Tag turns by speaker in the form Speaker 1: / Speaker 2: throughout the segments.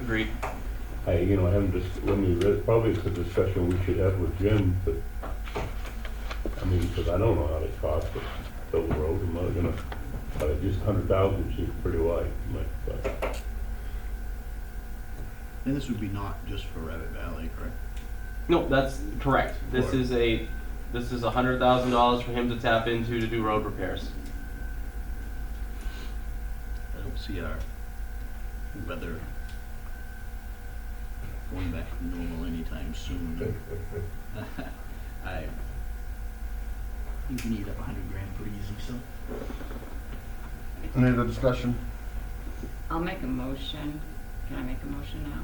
Speaker 1: Agreed.
Speaker 2: I, you know, I haven't just, I mean, that probably it's a discussion we should have with Jim, but, I mean, because I don't know how they cost it, so road, I'm not gonna, but it just hundred thousand seems pretty wide, like, but,
Speaker 3: And this would be not just for Rabbit Valley, correct?
Speaker 1: No, that's correct. This is a, this is a hundred thousand dollars for him to tap into to do road repairs.
Speaker 3: I don't see our weather going back to normal anytime soon. I think we need up a hundred grand pretty easy, so.
Speaker 4: Any other discussion?
Speaker 5: I'll make a motion. Can I make a motion now?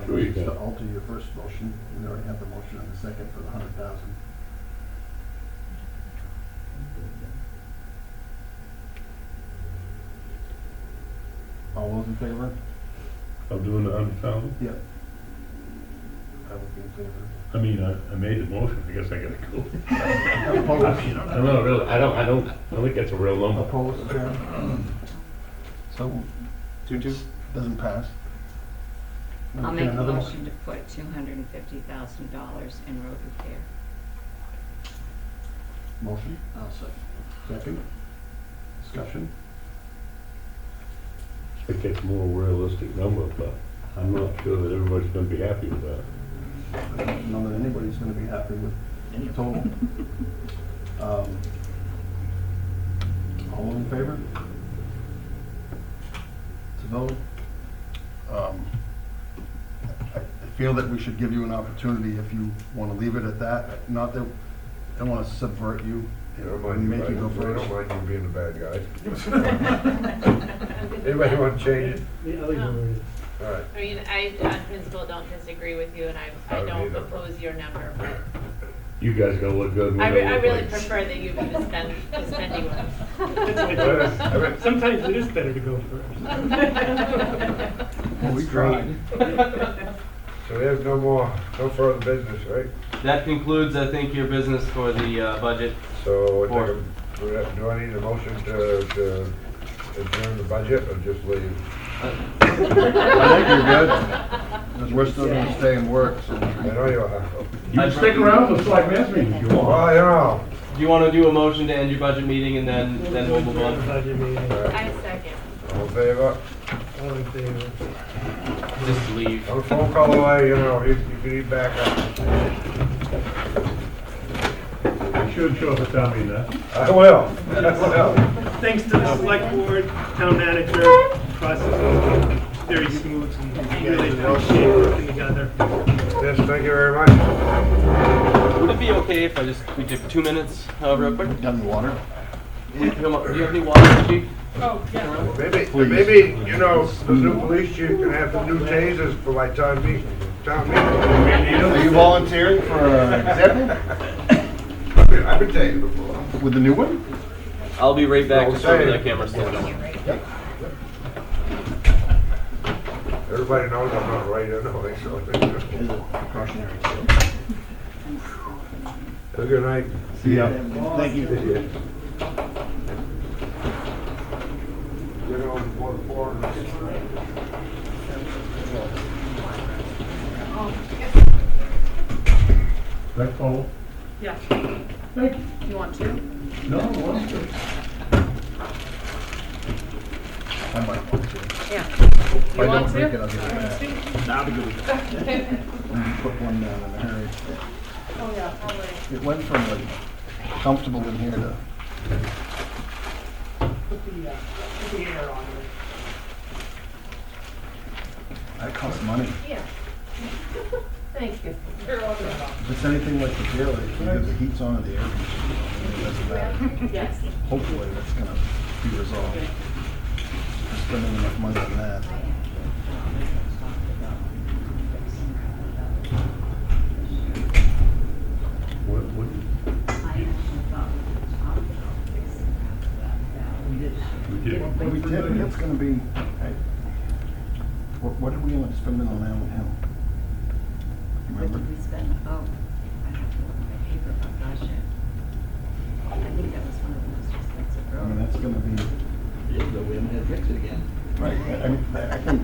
Speaker 4: My
Speaker 2: Sure you
Speaker 4: motion is
Speaker 2: can.
Speaker 4: to alter your first motion, we already have the motion and the second for the hundred thousand. All those in favor?
Speaker 2: I'm doing the hundred thousand.
Speaker 4: Yep. I would be in favor.
Speaker 2: I mean, I, I made the motion, I guess I gotta go. I
Speaker 4: Opposed?
Speaker 2: don't know, really, I don't, I don't, I don't think that's a real number.
Speaker 4: Opposed, Chair? So,
Speaker 1: Two, two?
Speaker 4: doesn't pass.
Speaker 5: I'll make a
Speaker 4: Another
Speaker 5: motion to put two hundred and fifty thousand dollars in road repair.
Speaker 4: Motion,
Speaker 3: I'll second.
Speaker 4: second. Discussion?
Speaker 2: I think that's a more realistic number, but I'm not sure that everybody's gonna be happy with that.
Speaker 4: I don't know that anybody's gonna be happy with
Speaker 3: Any
Speaker 4: total.
Speaker 3: opposed?
Speaker 4: Um, All in favor? To vote? Um, I I feel that we should give you an opportunity if you want to leave it at that, not that, I don't want to subvert you.
Speaker 6: I don't mind you,
Speaker 4: Make you go
Speaker 6: I
Speaker 4: first.
Speaker 6: don't mind you being the bad guy. Anybody want to change it? All right,
Speaker 7: I mean, I, on principle, don't disagree with you, and I,
Speaker 6: I
Speaker 7: I
Speaker 6: don't
Speaker 7: don't
Speaker 6: either.
Speaker 7: oppose your number, but
Speaker 2: You guys gonna look good. we
Speaker 7: I, re-
Speaker 2: gonna
Speaker 7: I
Speaker 2: look
Speaker 7: really
Speaker 2: like-
Speaker 7: prefer that you be the spend, the spending
Speaker 6: Yes.
Speaker 7: one.
Speaker 8: Sometimes it is better to go first.
Speaker 4: Well, we tried.
Speaker 6: so we have no more, no further business, right?
Speaker 1: That concludes, I think, your business for the uh, budget.
Speaker 6: So I
Speaker 1: Four.
Speaker 6: think, I'm- do I- do I need a motion to, to adjourn the budget or just leave?
Speaker 4: I think you're good, because we're still going to stay and work, so.
Speaker 6: I know you are.
Speaker 2: You can stick around for select mass meeting if you
Speaker 6: Well,
Speaker 2: want.
Speaker 6: I know.
Speaker 1: Do you want to do a motion to end your budget meeting and then, then we'll move on?
Speaker 8: Budget meeting,
Speaker 6: All right.
Speaker 7: I second.
Speaker 6: All in favor?
Speaker 8: all in favor.
Speaker 1: Just leave.
Speaker 6: I'm a phone call away, you know, you you can eat back up.
Speaker 2: You should show up at town meeting, huh?
Speaker 6: I will, I will.
Speaker 8: Thanks to the select board, town manager, process was very smooth and really appreciate working together.
Speaker 6: Yes, thank you very much.
Speaker 1: Would it be okay if I just, we took two minutes, uh, real quick?
Speaker 4: Done water?
Speaker 1: Come on, Do you have any water, chief?
Speaker 6: Maybe,
Speaker 4: Please.
Speaker 6: maybe, you know, the new police chief can have the new tasers for my town meeting, town
Speaker 4: Are
Speaker 6: meeting.
Speaker 4: you volunteering for uh, example
Speaker 6: I've been tased before.
Speaker 4: with the new one?
Speaker 1: I'll be right back,
Speaker 6: No,
Speaker 1: just over
Speaker 6: say-
Speaker 1: the camera, so don't worry.
Speaker 6: Everybody knows I'm not right anyway, so.
Speaker 4: Is it precautionary?
Speaker 6: Have a good night.
Speaker 4: Yeah. Thank you.
Speaker 6: You know, before the foreigners.
Speaker 2: That's all.
Speaker 5: Yeah. You want to?
Speaker 2: No, I want to.
Speaker 4: I might want to. If
Speaker 5: Yeah.
Speaker 4: I
Speaker 5: You want
Speaker 4: don't drink it,
Speaker 5: to?
Speaker 4: I'll give it back.
Speaker 3: That'd be good.
Speaker 4: Put one down in a hurry.
Speaker 7: Oh, yeah, I'll wait.
Speaker 4: It went from like comfortable in here to.
Speaker 7: uh,
Speaker 4: That costs money.
Speaker 7: Yeah. Thank you.
Speaker 4: If it's anything like the jail, if you have the heat's on or the air conditioning, that's bad.
Speaker 7: Yes.
Speaker 4: Hopefully that's gonna be resolved. We're spending enough money on that.
Speaker 2: What, what, we did.
Speaker 4: But we did, and it's gonna be, hey, what, what did we end up spending on Allen Hill? You
Speaker 5: What
Speaker 4: Remember?
Speaker 5: did we spend? Oh, I have to look at my paper, but gosh, I- I think that was one of the most expensive
Speaker 4: I
Speaker 5: roads.
Speaker 4: mean, that's gonna be,
Speaker 3: Yeah, but we haven't had to fix it again.
Speaker 4: right, I I mean, I think